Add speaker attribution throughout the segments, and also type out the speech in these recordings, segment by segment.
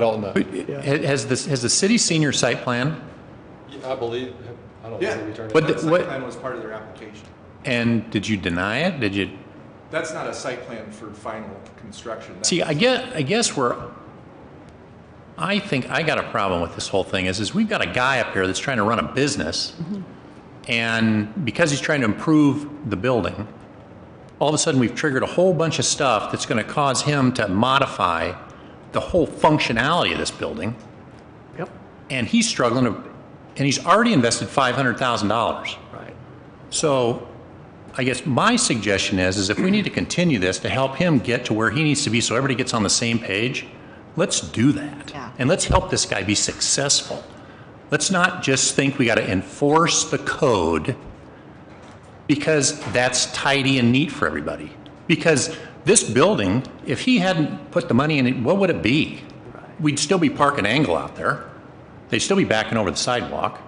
Speaker 1: don't know.
Speaker 2: Has this, has the city seen your site plan?
Speaker 1: I believe, I don't
Speaker 3: Yeah.
Speaker 1: know. we turned it
Speaker 2: What,
Speaker 1: down.
Speaker 2: the-
Speaker 3: That site
Speaker 2: what,
Speaker 3: plan was part of their application.
Speaker 2: and did you deny it? Did you,
Speaker 3: That's not a site plan for final construction. That's-
Speaker 2: see, I guess, I guess we're, I think I got a problem with this whole thing is, is we've got a guy up here that's trying to run a business.
Speaker 4: Mm-hmm.
Speaker 2: And because he's trying to improve the building, all of a sudden we've triggered a whole bunch of stuff that's going to cause him to modify the whole functionality of this building.
Speaker 4: Yep,
Speaker 2: And he's struggling to, and he's already invested $500,000.
Speaker 4: right.
Speaker 2: So I guess my suggestion is, is if we need to continue this to help him get to where he needs to be so everybody gets on the same page, let's do that.
Speaker 5: Yeah.
Speaker 2: And let's help this guy be successful. Let's not just think we got to enforce the code because that's tidy and neat for everybody. Because this building, if he hadn't put the money in it, what would it be? We'd still be parking angle out there. They'd still be backing over the sidewalk.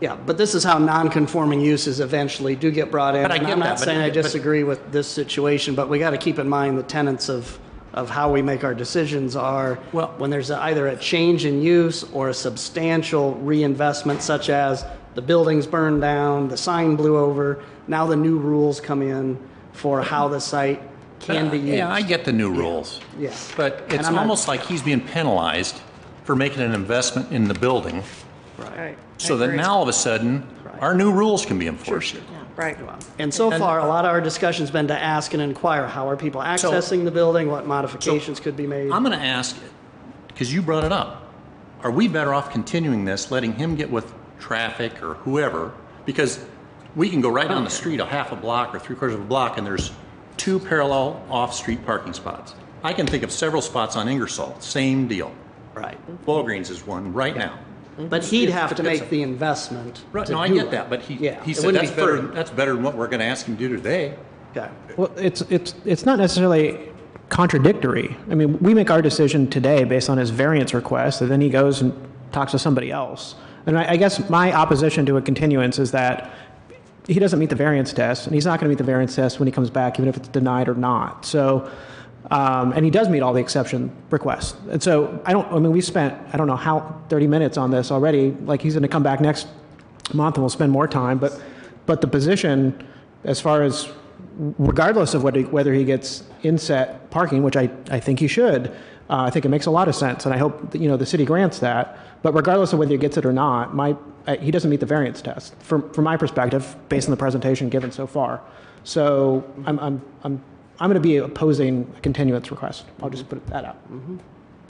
Speaker 4: Yeah, but this is how non-conforming uses eventually do get brought in.
Speaker 2: But I
Speaker 4: And
Speaker 2: get
Speaker 4: I'm
Speaker 2: that,
Speaker 4: not
Speaker 2: but-
Speaker 4: saying I
Speaker 2: but-
Speaker 4: disagree with this situation, but we got to keep in mind the tenets of, of how we make our decisions are
Speaker 2: Well-
Speaker 4: when there's either a change in use or a substantial reinvestment such as the building's burned down, the sign blew over, now the new rules come in for how the site can be used.
Speaker 2: Yeah, I get the new rules.
Speaker 4: Yeah.
Speaker 2: But
Speaker 4: And
Speaker 2: it's
Speaker 4: I'm not-
Speaker 2: almost like he's being penalized for making an investment in the building,
Speaker 5: Right.
Speaker 2: so that now all of a sudden, our new rules can be enforced.
Speaker 5: Right.
Speaker 4: And so
Speaker 2: And-
Speaker 4: far, a lot of our discussion's been to ask and inquire, how are people accessing the building? What modifications could be made?
Speaker 2: I'm going to ask, because you brought it up, are we better off continuing this, letting him get with traffic or whoever? Because we can go right down the street a half a block or three quarters of a block, and there's two parallel off-street parking spots. I can think of several spots on Ingersoll, same deal.
Speaker 4: Right.
Speaker 2: Walgreens is one right now.
Speaker 4: But he'd have to
Speaker 2: It's-
Speaker 4: make the investment.
Speaker 2: Right,
Speaker 4: to
Speaker 2: no, I
Speaker 4: do
Speaker 2: get
Speaker 4: it.
Speaker 2: that, but he,
Speaker 4: Yeah,
Speaker 2: he
Speaker 4: it
Speaker 2: said
Speaker 4: wouldn't
Speaker 2: that's
Speaker 4: be fair.
Speaker 2: better, that's better than what we're gonna ask him to do today.
Speaker 4: Okay.
Speaker 6: Well, it's, it's, it's not necessarily contradictory. I mean, we make our decision today based on his variance request, and then he goes and talks to somebody else. And I, I guess my opposition to a continuance is that he doesn't meet the variance test, and he's not going to meet the variance test when he comes back, even if it's denied or not. So, um, and he does meet all the exception requests. And so I don't, I mean, we spent, I don't know how, 30 minutes on this already. Like, he's going to come back next month and we'll spend more time. But, but the position, as far as regardless of what he, whether he gets inset parking, which I, I think he should, uh, I think it makes a lot of sense, and I hope that, you know the city grants that. But regardless of whether he gets it or not, my uh, he doesn't meet the variance test from from my perspective, based on the presentation given so far. So I'm I'm I'm I'm going to be opposing a continuance request. I'll just put that out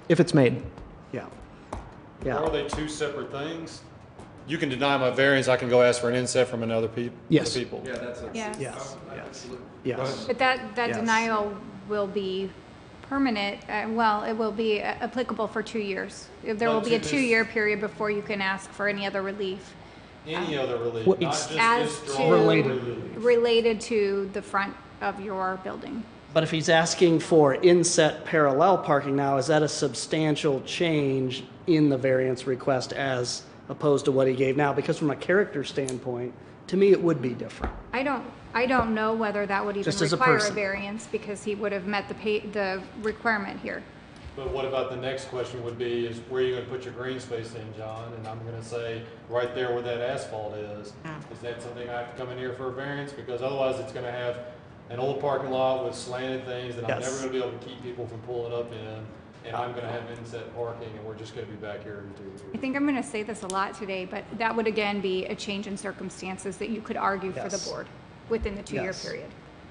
Speaker 6: if it's made.
Speaker 4: Yeah.
Speaker 1: Are
Speaker 4: Yeah.
Speaker 1: they two separate things? You can deny my variance, I can go ask for an inset from another peop-
Speaker 6: Yes.
Speaker 1: people.
Speaker 3: Yeah, that's a.
Speaker 7: Yes.
Speaker 4: Yes. Yes. Yes.
Speaker 7: But that, that
Speaker 4: Yes.
Speaker 7: denial will be permanent, uh, well, it will be a- applicable for two years. There will
Speaker 1: But
Speaker 7: be a
Speaker 1: to this-
Speaker 7: two-year period before you can ask for any other relief
Speaker 1: Any other relief,
Speaker 6: Well,
Speaker 1: not just
Speaker 7: as
Speaker 1: this
Speaker 7: to.
Speaker 1: drawing.
Speaker 7: Related to the front of your building.
Speaker 4: But if he's asking for inset parallel parking now, is that a substantial change in the variance request as opposed to what he gave now? Because from a character standpoint, to me, it would be different.
Speaker 7: I don't, I don't know whether that would even
Speaker 4: Just as a
Speaker 7: require a
Speaker 4: person.
Speaker 7: variance because he would have met the pay, the requirement here.
Speaker 1: But what about the next question would be, is where are you gonna put your green space in, John? And I'm gonna say, right there where that asphalt is. Is that something I have to come in here for a variance? Because otherwise, it's gonna have an old parking lot with slanted things that I'm
Speaker 4: Yes.
Speaker 1: never gonna be able to keep people from pulling up in. And I'm gonna have inset parking, and we're just gonna be back here in two years.
Speaker 7: I think I'm going to say this a lot today, but that would again be a change in circumstances that you could argue for the
Speaker 4: Yes.
Speaker 7: board within the two-year
Speaker 4: Yes.
Speaker 7: period.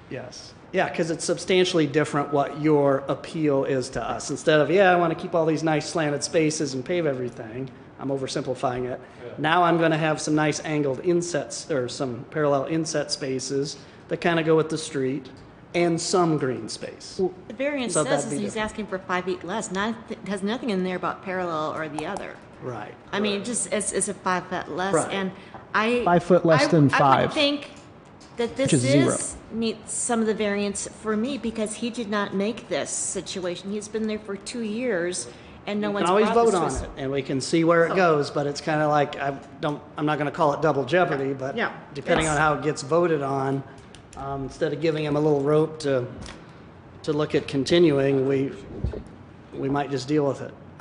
Speaker 4: Yes. Yeah, because it's substantially different what your appeal is to us. Instead of, yeah, I want to keep all these nice slanted spaces and pave everything, I'm oversimplifying it. Now I'm going to have some nice angled insets or some parallel inset spaces that kind of go with the street and some green space.
Speaker 5: The variance
Speaker 4: So that'd
Speaker 5: says is
Speaker 4: be
Speaker 5: he's
Speaker 4: different.
Speaker 5: asking for five feet less, not, it has nothing in there about parallel or the other.
Speaker 4: Right.
Speaker 5: I mean, just as, as a five foot less,
Speaker 4: Right.
Speaker 5: and I.
Speaker 6: Five foot less
Speaker 5: I- I
Speaker 6: than
Speaker 5: would
Speaker 6: five,
Speaker 5: think that
Speaker 6: which
Speaker 5: this
Speaker 6: is zero.
Speaker 5: is, meets some of the variance for me, because he did not make this situation. He's been there for two years, and no
Speaker 4: We can
Speaker 5: one's
Speaker 4: always
Speaker 5: brought this
Speaker 4: vote
Speaker 5: to
Speaker 4: on
Speaker 5: us.
Speaker 4: it and we can see where it goes, but it's kind of like, I don't, I'm not going to call it double jeopardy, but
Speaker 5: Yeah.
Speaker 4: depending on how it gets voted on, um, instead of giving him a little rope to, to look at continuing, we, we might just deal with it.